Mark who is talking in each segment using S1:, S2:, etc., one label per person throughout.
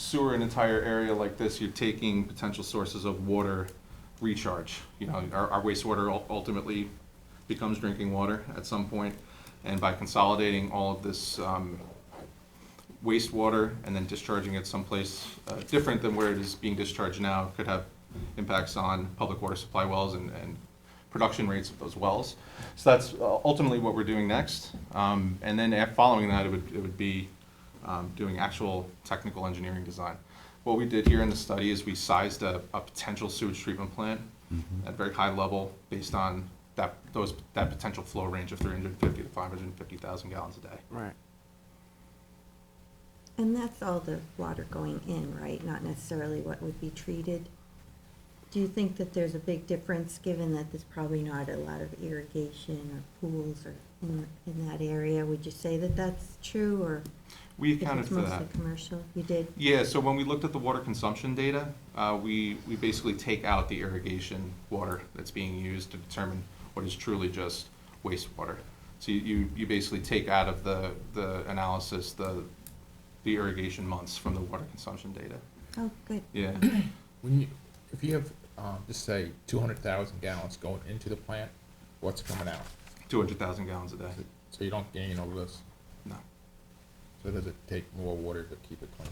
S1: sewer an entire area like this, you're taking potential sources of water recharge. You know, our our wastewater ul- ultimately becomes drinking water at some point, and by consolidating all of this um, wastewater and then discharging it someplace uh, different than where it is being discharged now could have impacts on public water supply wells and, and production rates of those wells. So that's uh, ultimately what we're doing next. Um, And then af- following that, it would, it would be um, doing actual technical engineering design. What we did here in the study is we sized a, a potential sewage treatment plant at very high level based on that, those, that potential flow range of 350 to 550,000 gallons a day.
S2: Right.
S3: And that's all the water going in, right? Not necessarily what would be treated? Do you think that there's a big difference, given that there's probably not a lot of irrigation or pools or in, in that area? Would you say that that's true, or
S1: We
S3: if
S1: accounted
S3: it's
S1: for that.
S3: mostly commercial? You did?
S1: Yeah, so when we looked at the water consumption data, uh, we, we basically take out the irrigation water that's being used to determine what is truly just wastewater. So you- you, you basically take out of the, the analysis, the, the irrigation months from the water consumption data.
S3: Oh, good.
S1: Yeah,
S4: When you, if you have, um, just say, two hundred thousand gallons going into the plant, what's coming out?
S1: two hundred thousand gallons a day,
S4: So you don't gain over this,
S1: no.
S4: so does it take more water to keep it clean?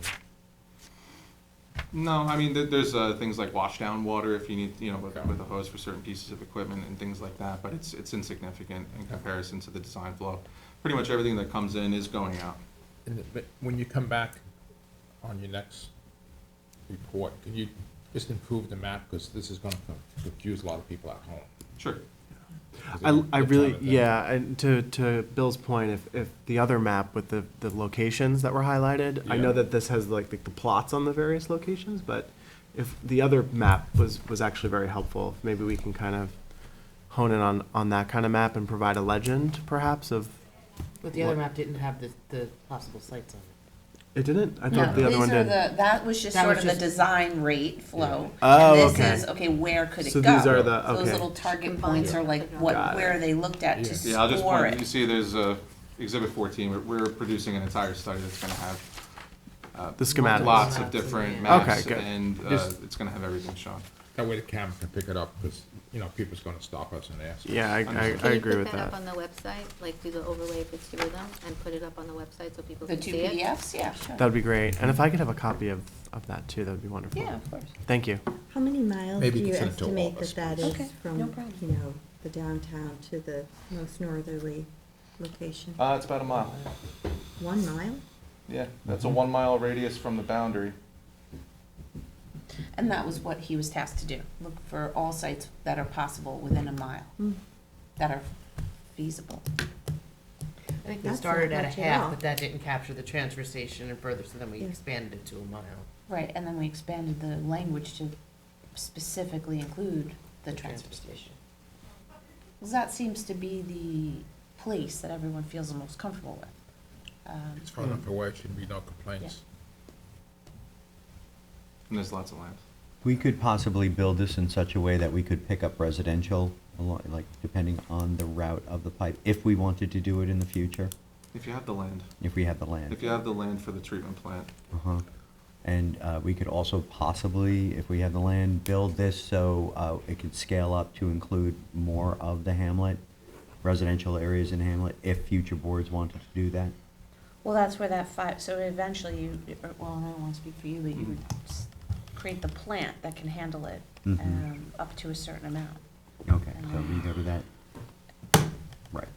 S1: No, I mean, there, there's, uh, things like wash down water if you need, you know, with,
S4: Okay.
S1: with a hose for certain pieces of equipment and things like that, but it's, it's insignificant in
S4: Okay.
S1: comparison to the design flow. Pretty much everything that comes in is going out.
S4: And, it- but when you come back on your next report, can you just improve the map, because this is gonna confuse a lot of people at home.
S1: Sure.
S4: 'Cause
S2: I,
S4: they're
S2: I
S4: trying
S2: really,
S4: to think.
S2: yeah, and to, to Bill's point, if, if the other map with the, the locations that were highlighted, I know
S4: Yeah.
S2: that this has like the, the plots on the various locations, but if the other map was, was actually very helpful, maybe we can kind of hone in on, on that kind of map and provide a legend perhaps of,
S5: But the other
S2: What-
S5: map didn't have the, the possible sites on it.
S2: it didn't? I
S6: No,
S2: thought the other one
S6: these are
S2: did.
S6: the, that was just
S5: That
S6: sort
S5: was
S6: of the
S5: just-
S6: design rate flow.
S2: Oh,
S6: And
S2: okay.
S6: This is, okay, where could it
S2: So
S6: go?
S2: these are the-
S6: So
S2: okay.
S6: Those little target points are like
S2: Got
S6: what,
S2: it.
S6: where they looked at
S4: Yeah.
S6: to
S1: Yeah, I'll just
S6: score
S1: point, you
S6: it.
S1: see there's uh exhibit fourteen, we're, we're producing an entire study that's gonna have. uh,
S2: The schematics.
S1: Lots of
S5: Schematics,
S1: different
S5: yeah.
S1: maps
S2: Okay, good.
S1: and uh,
S4: Just-
S1: it's gonna have everything shown.
S4: That way the camera can pick it up, because, you know, people's gonna stop us and ask.
S2: Yeah, I, I,
S1: Understood.
S2: I
S7: Can you
S2: agree
S7: put
S2: with
S7: that up on
S2: that.
S7: the website, like do the overlay if it's two of them, and put it up on the website so people
S6: The
S7: can
S6: two
S7: see it?
S6: PDFs, yeah, sure.
S2: That'd be great. And if I could have a copy of, of that too, that'd be wonderful.
S6: Yeah, of course.
S2: Thank you.
S3: How many miles do
S4: Maybe
S3: you
S4: consider it to all
S3: estimate
S4: of
S3: that
S4: us,
S3: that
S6: please.
S3: is
S6: Okay,
S3: from,
S6: no problem.
S3: you know, the downtown to the most northerly location?
S1: Uh, it's about a mile,
S3: One mile?
S1: yeah, that's
S2: Mm-hmm.
S1: a one mile radius from the boundary.
S6: And that was what he was tasked to do, look for all sites that are possible within a mile,
S3: Hmm.
S6: that are feasible.
S5: I think
S3: That's
S5: they
S3: not
S5: started at a
S3: much at all.
S5: half, but that didn't capture the transfer station and further, so then we
S3: Yeah.
S5: expanded it to a mile.
S6: Right, and then we expanded the language to specifically include the transfer station. Because that seems to be the place that everyone feels the most comfortable with. Um,
S4: It's far enough away, should be no complaints.
S1: And there's lots of land.
S8: We could possibly build this in such a way that we could pick up residential, alo- like, depending on the route of the pipe, if we wanted to do it in the future,
S1: If you have the land,
S8: if we have the land.
S1: if you have the land for the treatment plant,
S8: Uh-huh. And uh, we could also possibly, if we have the land, build this so uh, it could scale up to include more of the hamlet, residential areas in hamlet, if future boards wanted to do that.
S6: Well, that's where that five, so eventually you, or- well, I don't want to speak for you, but
S4: Mm-hmm.
S6: you would s- create the plant that can handle it
S8: Mhm.
S6: um, up to a certain amount.
S8: Okay, so we go to that. Right.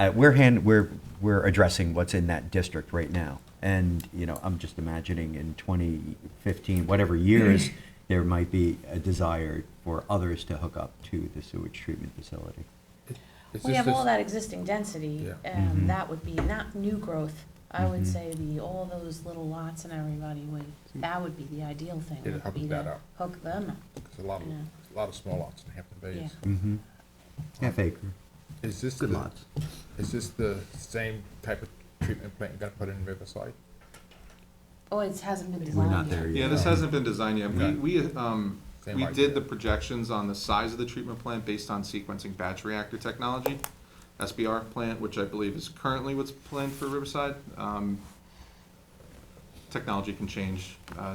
S8: Uh, we're hand, we're, we're addressing what's in that district right now. And, you know, I'm just imagining in twenty fifteen, whatever years, there might be a desire for others to hook up to the sewage treatment facility.
S4: It's
S6: We
S4: just
S6: have all
S4: this-
S6: that existing density,
S4: Yeah.
S6: um,
S8: Mhm.
S6: that would be not new growth. I would
S8: Mhm.
S6: say the, all those little lots and everybody would, that would be the ideal thing.
S4: Yeah,
S6: would
S4: hook
S6: be
S4: that
S6: to
S4: up.
S6: Hook them up.
S4: There's a lot of,
S6: Yeah.
S4: a lot of small lots in Hampton Bays.
S6: Yeah.
S8: Mm-hmm. Half acre,
S4: Is this
S8: good
S4: the,
S8: lots.
S4: is this the same type of treatment plant you're gonna put in Riverside?
S6: Oh, it hasn't been
S8: We're
S6: designed
S8: not there yet.
S1: Yeah, this hasn't been designed yet. We,
S4: Okay.
S1: we, um,
S4: Same
S1: we
S4: idea.
S1: did the projections on the size of the treatment plant based on sequencing batch reactor technology. SBR plant, which I believe is currently what's planned for Riverside. Um, Technology can change, uh,